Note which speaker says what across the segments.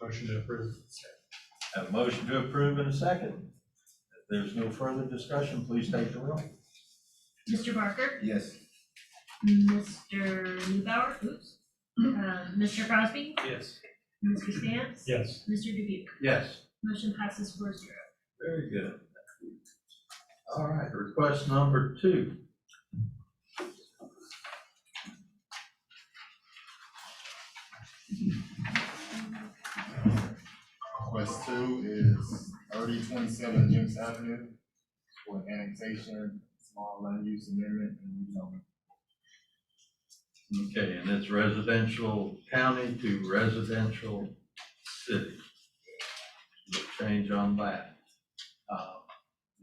Speaker 1: Motion to approve.
Speaker 2: Have a motion to approve in a second. If there's no further discussion, please take the roll.
Speaker 3: Mr. Barker,
Speaker 4: Yes.
Speaker 3: Mr. Newbauer, oops, uh, Mr. Crosby,
Speaker 1: Mm-hmm. Yes.
Speaker 3: Mr. Stamps,
Speaker 1: Yes.
Speaker 3: Mr. Dubuque.
Speaker 2: Yes.
Speaker 3: Motion passes four zero.
Speaker 2: Very good. All right, request number two.
Speaker 4: Request two is thirty twenty-seven James Avenue for annexation, small land use amendment and rezone.
Speaker 2: Okay, and it's residential county to residential city. No Change on that. Uh,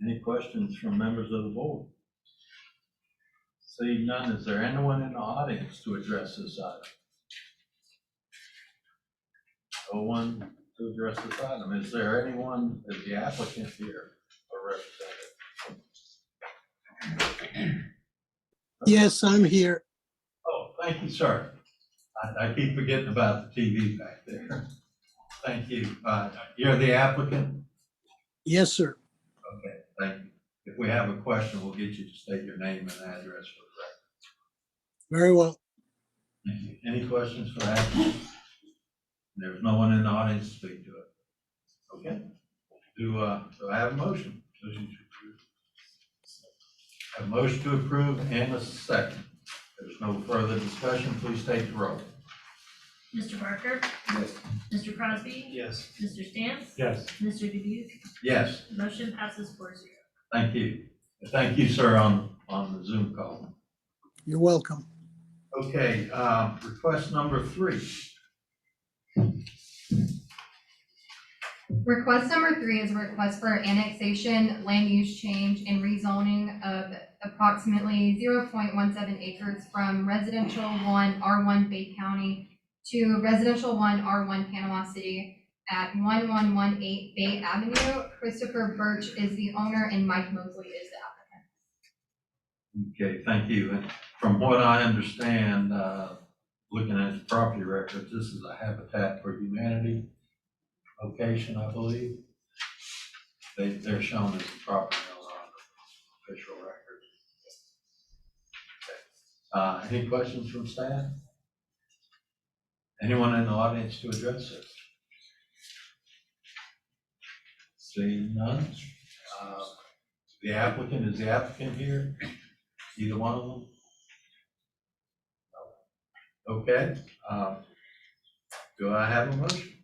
Speaker 2: Any questions from members of the board? Seeing none, is there anyone in the audience to address this item? No one to address this item. Is there anyone, is the applicant here or representative?
Speaker 5: Yes, I'm here.
Speaker 2: Oh, thank you, sir. I, I keep forgetting about the TV back there. Thank you. Uh, You're the applicant?
Speaker 5: Yes, sir.
Speaker 2: Okay, thank you. If we have a question, we'll get you to state your name and address for the record.
Speaker 5: Very well.
Speaker 2: Thank you. Any questions for that? There's no one in the audience to speak to it. Okay. Do, uh, do I have a motion? Have a motion to approve and a second. There's no further discussion. Please state the roll.
Speaker 3: Mr. Barker,
Speaker 4: Yes.
Speaker 3: Mr. Crosby,
Speaker 1: Yes.
Speaker 3: Mr. Stamps,
Speaker 1: Yes.
Speaker 3: Mr. Dubuque.
Speaker 2: Yes.
Speaker 3: Motion passes four zero.
Speaker 2: Thank you. Thank you, sir, on, on the Zoom call.
Speaker 5: You're welcome.
Speaker 2: Okay, uh, request number three.
Speaker 6: Request number three is a request for annexation, land use change, and rezoning of approximately zero point one seven acres from residential one R one Bay County to residential one R one Panama City at one one one eight Bay Avenue. Christopher Birch is the owner and Mike Mosley is the
Speaker 2: Okay,
Speaker 6: applicant.
Speaker 2: thank you. And From what I understand, uh, looking at the property records, this is a Habitat for Humanity location, I believe. They, they're shown as the property owner on the official record. Uh, Any questions from staff? Anyone in the audience to address this? Seeing none. Uh, The applicant, is the applicant here? Either one of them? Okay, um, do I have a motion?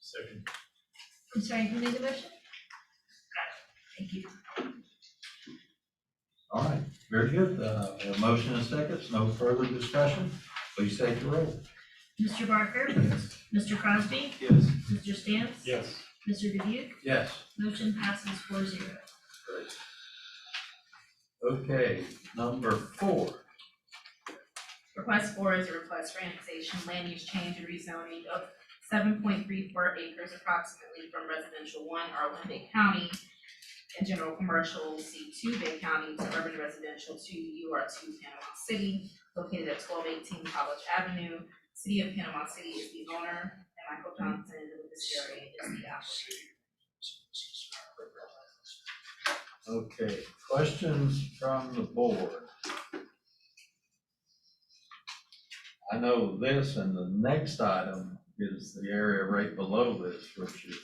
Speaker 1: Second.
Speaker 3: I'm sorry, who made the motion? Got it. Thank you.
Speaker 2: All right, very good. Uh, a motion and seconds, no further discussion. Please take the roll.
Speaker 3: Mr. Barker,
Speaker 4: Yes.
Speaker 3: Mr. Crosby,
Speaker 2: Yes.
Speaker 3: Mr. Stamps,
Speaker 1: Yes.
Speaker 3: Mr. Dubuque.
Speaker 2: Yes.
Speaker 3: Motion passes four zero.
Speaker 2: Okay, number four.
Speaker 7: Request four is a request for annexation, land use change, and rezoning of seven point three four acres approximately from residential one R one Bay County and general commercial C two Bay County to urban residential two U R two Panama City, located at twelve eighteen College Avenue. City of Panama City is the owner, and Michael Johnson with the CRA is the applicant.
Speaker 2: Okay, questions from the board? I know this and the next item is the area right below this, which is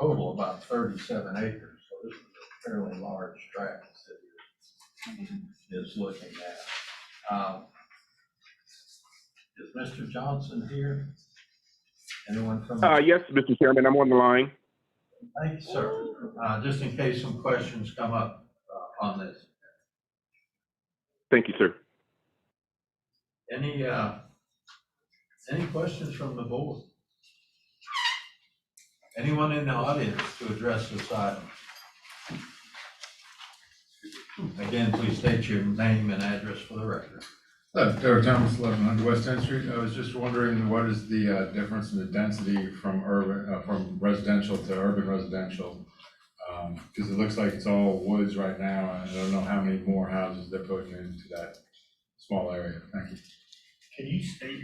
Speaker 2: total about thirty-seven acres, so this is a fairly large tract the city is looking at. Um, Is Mr. Johnson here? Anyone from? the
Speaker 8: Uh, yes, Mr. Chairman, I'm on the line.
Speaker 2: Thank you, sir. Uh, Just in case some questions come up uh, on this.
Speaker 8: Thank you, sir.
Speaker 2: Any, uh, any questions from the board? Anyone in the audience to address this item? Again, please state your name and address for the record.
Speaker 4: Hello, Derek Uh, Thomas, eleven hundred West Tenth Street. I was just wondering, what is the uh, difference in the density from urban, uh, from residential to urban residential? Because it looks like it's all woods right now, and I don't know how many more houses they're putting into that small area. Thank you.
Speaker 1: Can you state your